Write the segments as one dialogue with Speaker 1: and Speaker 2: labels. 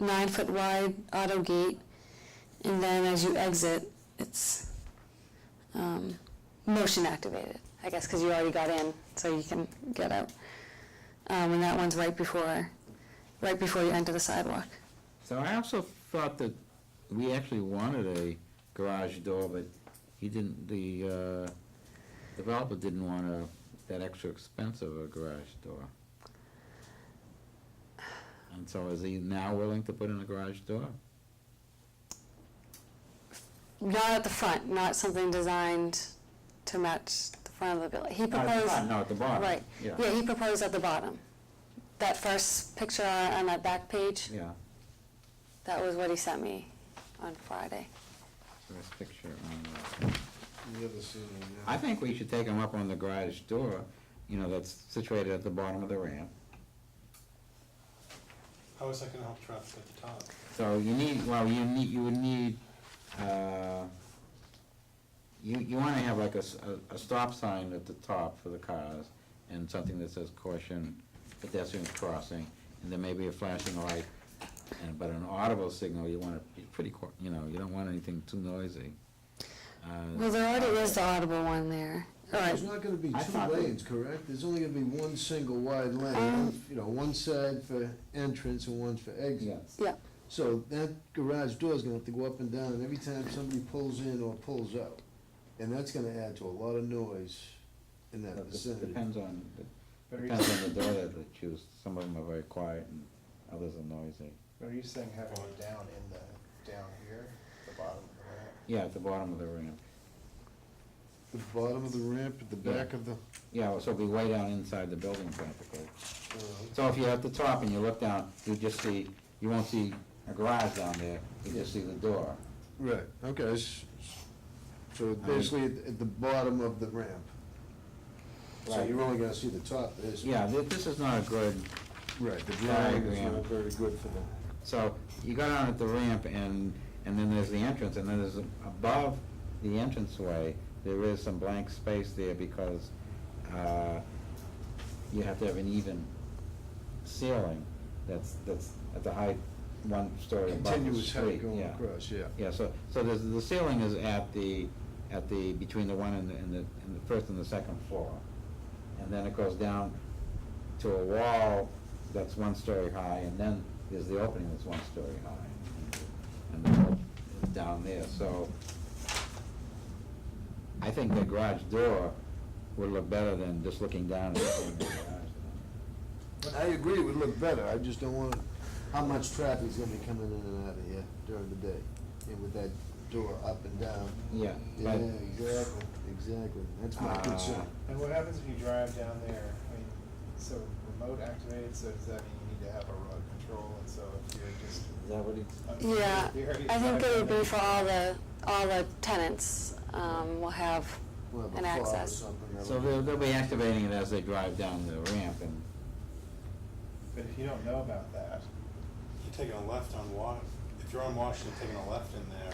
Speaker 1: nine-foot wide auto gate, and then as you exit, it's um, motion activated, I guess, because you already got in, so you can get out. Um, And that one's right before, right before you enter the sidewalk.
Speaker 2: So I also thought that we actually wanted a garage door, but he didn't, the, uh, developer didn't want a, that extra expense of a garage door. And so is he now willing to put in a garage door?
Speaker 1: Not at the front, not something designed to match the front of the building. He
Speaker 2: Not at the front,
Speaker 1: proposed,
Speaker 2: No, at the bottom.
Speaker 1: right,
Speaker 2: Yeah,
Speaker 1: yeah, he proposed at the bottom. That first picture on on that back page,
Speaker 2: yeah.
Speaker 1: that was what he sent me on Friday.
Speaker 2: First picture on the-
Speaker 3: You haven't seen it
Speaker 2: I think we should take them up on the garage door, you know, that's situated at the bottom of the ramp.
Speaker 3: How is that gonna help traffic at the top?
Speaker 2: So you need, well, you need, you would need, uh, you, you wanna have like a, s- a- a stop sign at the top for the cars and something that says caution pedestrian crossing, and then maybe a flashing light, and, but an audible signal, you wanna be pretty, qu- you know, you don't want anything too noisy. Uh,
Speaker 1: Well, there already is the audible one there. All right,
Speaker 4: There's not gonna be
Speaker 2: I
Speaker 4: two
Speaker 2: thought-
Speaker 4: lanes, correct? There's only gonna be one single wide lane,
Speaker 1: Um,
Speaker 4: one- you know, one side for entrance and one for exit.
Speaker 2: Yes.
Speaker 1: yeah,
Speaker 4: So that garage door's gonna have to go up and down every time somebody pulls in or pulls out. And that's gonna add to a lot of noise in that
Speaker 2: But this
Speaker 4: vicinity.
Speaker 2: Depends on, depends on the door that they choose, some of them are very quiet and others are noisy.
Speaker 3: Are you saying having it down in the, down here, the bottom of the ramp?
Speaker 2: Yeah, at the bottom of the ramp.
Speaker 4: The bottom of the ramp, at the back of the,
Speaker 2: Yeah, well, so it'll be way down inside the building practically.
Speaker 4: uh,
Speaker 2: So if you're at the top and you look down, you just see, you won't see a garage down there, you just see the door.
Speaker 4: right, okay. s- s- So basically at at the bottom of the ramp. So
Speaker 2: Right.
Speaker 4: you're only gonna see the top, there's.
Speaker 2: Yeah, thi- this is not a good,
Speaker 4: Right, the
Speaker 2: Diagram.
Speaker 4: drawing is not very good for them.
Speaker 2: so you go down at the ramp and, and then there's the entrance, and then there's above the entranceway, there is some blank space there because, uh, you have to have an even ceiling that's, that's at the height, one story above the
Speaker 4: Continuous height
Speaker 2: street,
Speaker 4: going
Speaker 2: yeah.
Speaker 4: across, yeah.
Speaker 2: Yeah, so, so there's, the ceiling is at the, at the, between the one and the, and the, and the first and the second floor. And then it goes down to a wall that's one story high, and then there's the opening that's one story high. And the wall is down there, so I think the garage door would look better than just looking down at the garage.
Speaker 4: I agree, it would look better, I just don't want, how much traffic's gonna be coming in and out of here during the day? And with that door up and down.
Speaker 2: Yeah,
Speaker 4: Yeah,
Speaker 2: but,
Speaker 4: exactly, exactly, that's my
Speaker 2: Uh,
Speaker 4: concern.
Speaker 5: And what happens if you drive down there? I mean, so remote activated, so does that mean you need to have a remote control? And so if you're just.
Speaker 2: is that what it's?
Speaker 1: yeah. I think it would be for all the, all the tenants um, will have
Speaker 4: We'll have a
Speaker 1: an
Speaker 4: fob or
Speaker 1: access.
Speaker 4: something that'll-
Speaker 2: So they'll, they'll be activating it as they drive down the ramp and,
Speaker 5: But if you don't know about that,
Speaker 3: You're taking a left on Wash, if you're on Washington, taking a left in there,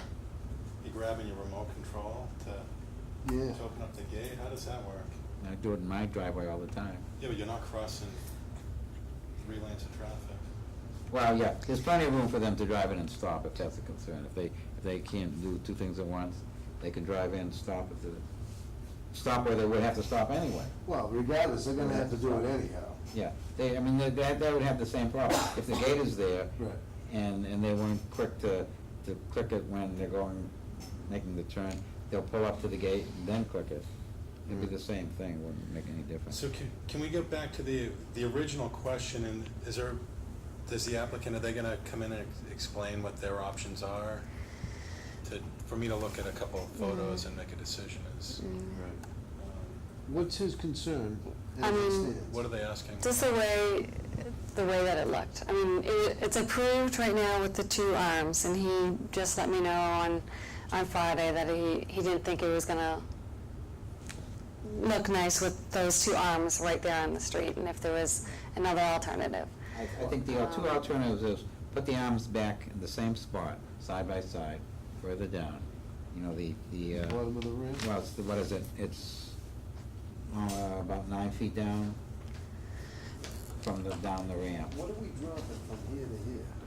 Speaker 3: you're grabbing your remote control to,
Speaker 4: Yeah,
Speaker 3: to open up the gate, how does that work?
Speaker 2: I do it in my driveway all the time.
Speaker 3: Yeah, but you're not crossing three lanes of traffic.
Speaker 2: Well, yeah, there's plenty of room for them to drive in and stop if that's a concern. If they, if they can't do two things at once, they can drive in, stop at the, stop where they would have to stop anyway.
Speaker 4: well, regardless, they're gonna have to do it anyhow.
Speaker 2: Yeah, they, I mean, they, they they would have the same problem. If the gate is there
Speaker 4: Right.
Speaker 2: and, and they weren't quick to, to click it when they're going, making the turn, they'll pull up to the gate and then click it. It'd be the same thing, wouldn't make any difference.
Speaker 3: So can, can we get back to the, the original question, and is there, does the applicant, are they gonna come in and ex- explain what their options are? To, for me to look at a couple of photos and make a decision is, um,
Speaker 4: What's his concern? as
Speaker 1: I
Speaker 4: it
Speaker 1: mean-
Speaker 4: stands?
Speaker 3: what are they asking?
Speaker 1: Mm. Just the way, the way that it looked. I mean, it, it's approved right now with the two arms, and he just let me know on, on Friday that he, he didn't think it was gonna look nice with those two arms right there on the street, and if there was another alternative.
Speaker 2: I, I think the al- two
Speaker 1: Um,
Speaker 2: alternatives is put the arms back in the same spot, side by side, further down. You know, the, the, uh,
Speaker 4: Bottom of the ramp?
Speaker 2: well, it's, the- what is it? It's, uh, about nine feet down from the, down the ramp.
Speaker 4: What do we drop it from here to here?